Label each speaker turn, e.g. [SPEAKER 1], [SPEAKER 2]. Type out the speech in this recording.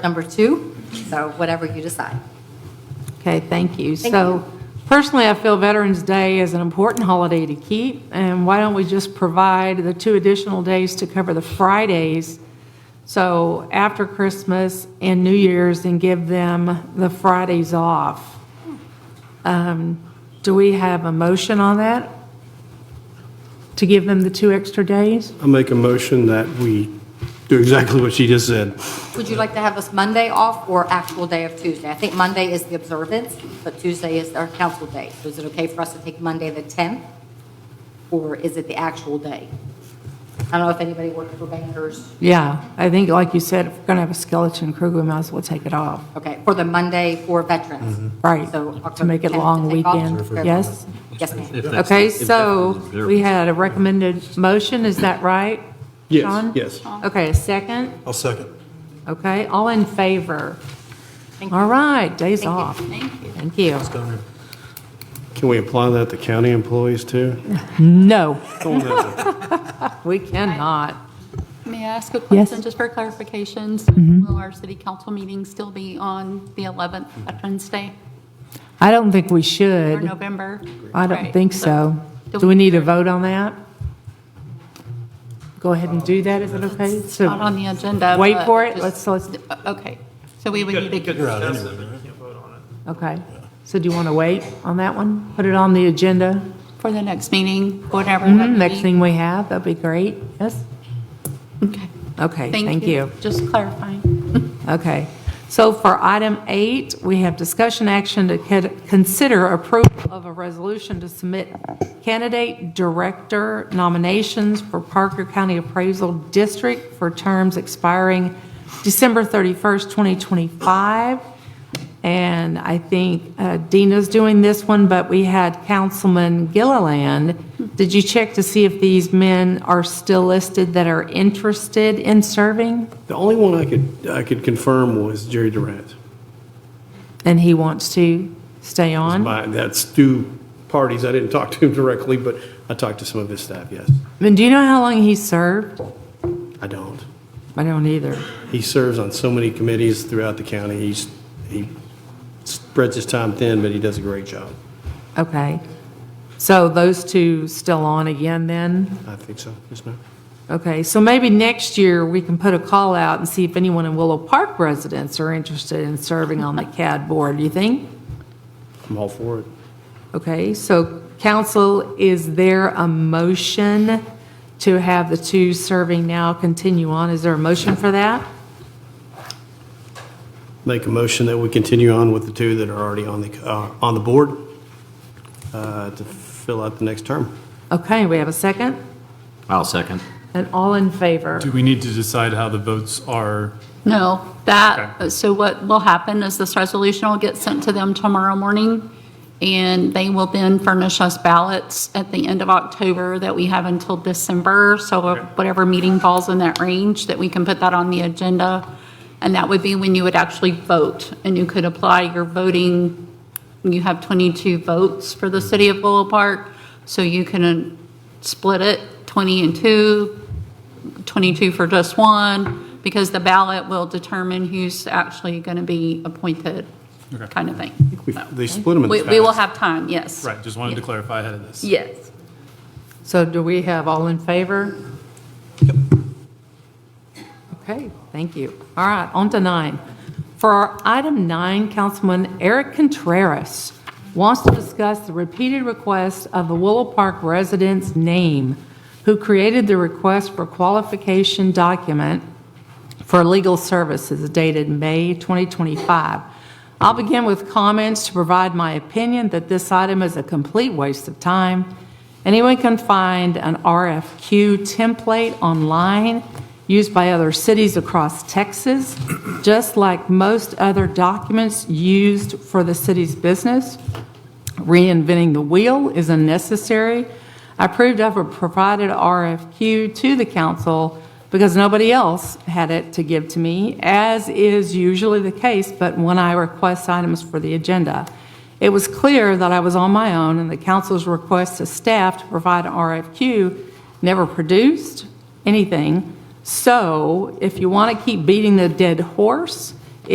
[SPEAKER 1] number two, so whatever you decide.
[SPEAKER 2] Okay, thank you.
[SPEAKER 1] Thank
[SPEAKER 2] So personally, I feel Veterans Day is an important holiday to keep, and why don't we just provide the two additional days to cover the Fridays? So after Christmas and New Year's, and give them the Fridays off. Um, Do we have a motion on that? To give them the two extra days?
[SPEAKER 3] I'll make a motion that we do exactly what she just said.
[SPEAKER 1] Would you like to have us Monday off or actual day of Tuesday? I think Monday is the observance, but Tuesday is our council day. So is it okay for us to take Monday the 10th? Or is it the actual day? I don't know if anybody worked for bankers,
[SPEAKER 2] Yeah, I think, like you said, if we're going to have a skeleton crew, we might as well take it off.
[SPEAKER 1] okay, for the Monday for veterans.
[SPEAKER 2] Mm-hmm. Right,
[SPEAKER 1] So
[SPEAKER 2] to make it
[SPEAKER 1] October 10th
[SPEAKER 2] long
[SPEAKER 1] to take off.
[SPEAKER 2] weekend, yes?
[SPEAKER 1] Yes, ma'am.
[SPEAKER 4] If that's-
[SPEAKER 2] Okay,
[SPEAKER 4] if that's
[SPEAKER 2] so
[SPEAKER 4] what it is.
[SPEAKER 2] we had a recommended motion, is that right?
[SPEAKER 3] Yes,
[SPEAKER 2] Sean?
[SPEAKER 3] yes.
[SPEAKER 2] Okay, a second?
[SPEAKER 5] I'll second.
[SPEAKER 2] Okay, all in favor?
[SPEAKER 1] Thank you.
[SPEAKER 2] All right, days
[SPEAKER 1] Thank you.
[SPEAKER 2] off. Thank you. Thank you.
[SPEAKER 3] Can we apply that to county employees too?
[SPEAKER 2] No,
[SPEAKER 3] Don't know.
[SPEAKER 2] we cannot.
[SPEAKER 6] May I ask a
[SPEAKER 2] Yes. Mm-hmm.
[SPEAKER 6] question, just for clarifications? Will our city council meeting still be on the 11th, Veterans Day,
[SPEAKER 2] I don't think we
[SPEAKER 6] or
[SPEAKER 2] should.
[SPEAKER 6] November?
[SPEAKER 2] I don't
[SPEAKER 6] Right,
[SPEAKER 2] think so.
[SPEAKER 6] do
[SPEAKER 2] Do we
[SPEAKER 6] we-
[SPEAKER 2] need a vote on that? Go ahead and do that, is it okay? So
[SPEAKER 6] Not on the agenda.
[SPEAKER 2] Wait
[SPEAKER 6] but
[SPEAKER 2] for it,
[SPEAKER 6] just-
[SPEAKER 2] let's-
[SPEAKER 6] Okay, so we would need to,
[SPEAKER 2] Okay, so do you want to wait on that one? Put it on the agenda,
[SPEAKER 6] for the next meeting, whatever. that
[SPEAKER 2] Mhm,
[SPEAKER 6] would
[SPEAKER 2] next
[SPEAKER 6] be.
[SPEAKER 2] thing we have, that'd be great, yes?
[SPEAKER 6] Okay,
[SPEAKER 2] Okay, thank you.
[SPEAKER 6] Just clarifying.
[SPEAKER 2] Okay. So for item eight, we have discussion action to cad- consider approval of a resolution to submit candidate director nominations for Parker County Appraisal District for terms expiring December 31st, 2025. And I think uh, Dina's doing this one, but we had Councilman Gilliland. Did you check to see if these men are still listed that are interested in serving?
[SPEAKER 3] The only one I could, I could confirm was Jerry Durant.
[SPEAKER 2] And he wants to stay on?
[SPEAKER 3] My- That's two parties. I didn't talk to him directly, but I talked to some of his staff, yes.
[SPEAKER 2] And do you know how long he served?
[SPEAKER 3] I don't.
[SPEAKER 2] I don't either.
[SPEAKER 3] He serves on so many committees throughout the county. He's, he spreads his time thin, but he does a great job.
[SPEAKER 2] Okay. So those two still on again then?
[SPEAKER 3] I think so, yes, ma'am.
[SPEAKER 2] Okay, so maybe next year we can put a call out and see if anyone in Willow Park residents are interested in serving on the CAD board, do you think?
[SPEAKER 3] I'm all for it.
[SPEAKER 2] Okay, so council, is there a motion to have the two serving now continue on? Is there a motion for that?
[SPEAKER 3] Make a motion that we continue on with the two that are already on the, uh, on the board uh, to fill out the next term.
[SPEAKER 2] Okay, we have a second?
[SPEAKER 4] I'll second.
[SPEAKER 2] And all in favor?
[SPEAKER 7] Do we need to decide how the votes are?
[SPEAKER 6] No, that, so what will happen is this resolution will get sent to them tomorrow morning, and they will then furnish us ballots at the end of October that we have until December, so whatever meeting falls in that range, that we can put that on the agenda, and that would be when you would actually vote, and you could apply your voting, you have 22 votes for the city of Willow Park, so you can uh, split it, 20 and 2, 22 for just one, because the ballot will determine who's actually going to be appointed, kind of thing.
[SPEAKER 3] We- They split them in
[SPEAKER 6] We
[SPEAKER 3] the
[SPEAKER 6] we will
[SPEAKER 3] past.
[SPEAKER 6] have time, yes.
[SPEAKER 7] Right, just wanted to clarify ahead of this.
[SPEAKER 6] Yes.
[SPEAKER 2] So do we have all in favor? Okay, thank you. All right, on to nine. For our item nine, Councilman Eric Contreras wants to discuss the repeated request of the Willow Park resident's name, who created the request for qualification document for legal services dated May 2025. I'll begin with comments to provide my opinion that this item is a complete waste of time. Anyone can find an RFQ template online used by other cities across Texas, just like most other documents used for the city's business. Reinventing the wheel is unnecessary. I proved I've provided RFQ to the council because nobody else had it to give to me, as is usually the case, but when I request items for the agenda. It was clear that I was on my own, and the council's request to staff to provide an RFQ never produced anything. So if you want to keep beating the dead horse,